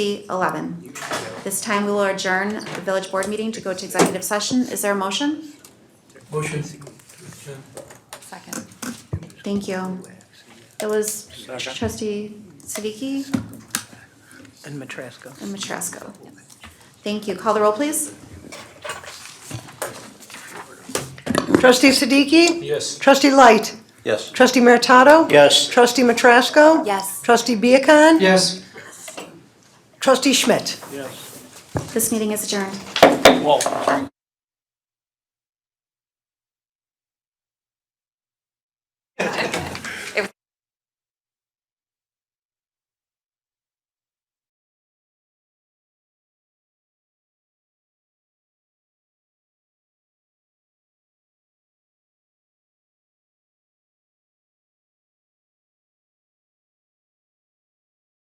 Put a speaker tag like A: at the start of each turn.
A: 11. This time we will adjourn the village board meeting to go to executive session. Is there a motion?
B: Motion.
A: Second. Thank you. It was trustee Siddiqui
C: And Matrasco.
A: and Matrasco. Thank you. Call the roll, please.
D: Trustee Siddiqui?
B: Yes.
D: Trustee Light?
E: Yes.
D: Trustee Meritato?
E: Yes.
D: Trustee Matrasco?
A: Yes.
D: Trustee Viacon?
B: Yes.
D: Trustee Schmidt?
E: Yes.
A: This meeting is adjourned.
E: Well.